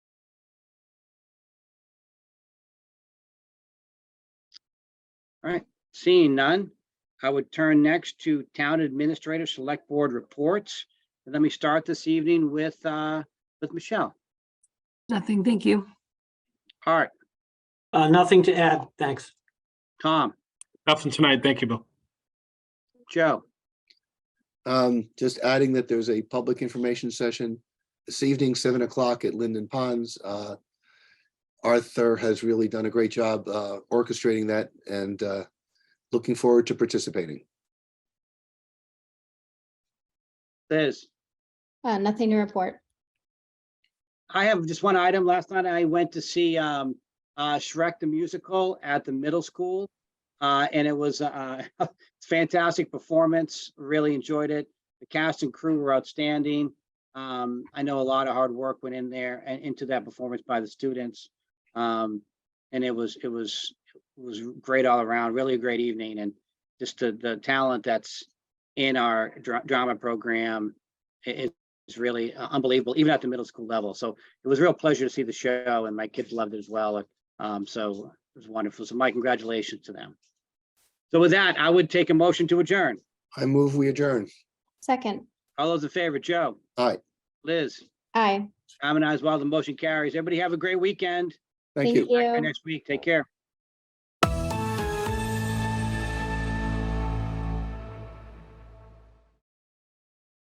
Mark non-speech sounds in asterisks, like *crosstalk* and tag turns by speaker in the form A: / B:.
A: Seeing none, I would turn next to Town Administrator Select Board Reports. And Let me start this evening with, uh, with Michelle
B: Nothing, thank you.
A: Hart,
C: Uh, nothing to add, thanks.
A: Tom,
D: Nothing tonight. Thank you, Bill.
A: Joe,
E: Um, just adding that there's a public information session this evening, seven o'clock at Linden Ponds. Uh, Arthur has really done a great job, uh, orchestrating that and, uh, looking forward to participating.
A: Liz.
F: Uh, nothing to report.
A: I have just one item. Last night I went to see um uh Shrek the Musical at the middle school. Uh, and it was uh *laughs* a fantastic performance. Really enjoyed it. The cast and crew were outstanding. Um, I know a lot of hard work went in there and into that performance by the students. Um, and it was, it was, it was great all around, really a great evening and just the the talent that's in our dra- drama program i- is is really uh, unbelievable, even at the middle school level. So it was a real pleasure to see the show and my kids loved it as well. Um, so it was wonderful. So my congratulations to them. So with that, I would take a motion to adjourn.
E: I move, we adjourn.
F: Second,
A: All those in favor, Joe?
E: Aye.
A: Liz,
F: aye.
A: I'm an ayes, while the motion carries. Everybody have a great weekend.
E: Thank you.
A: Back here Next week. Take care.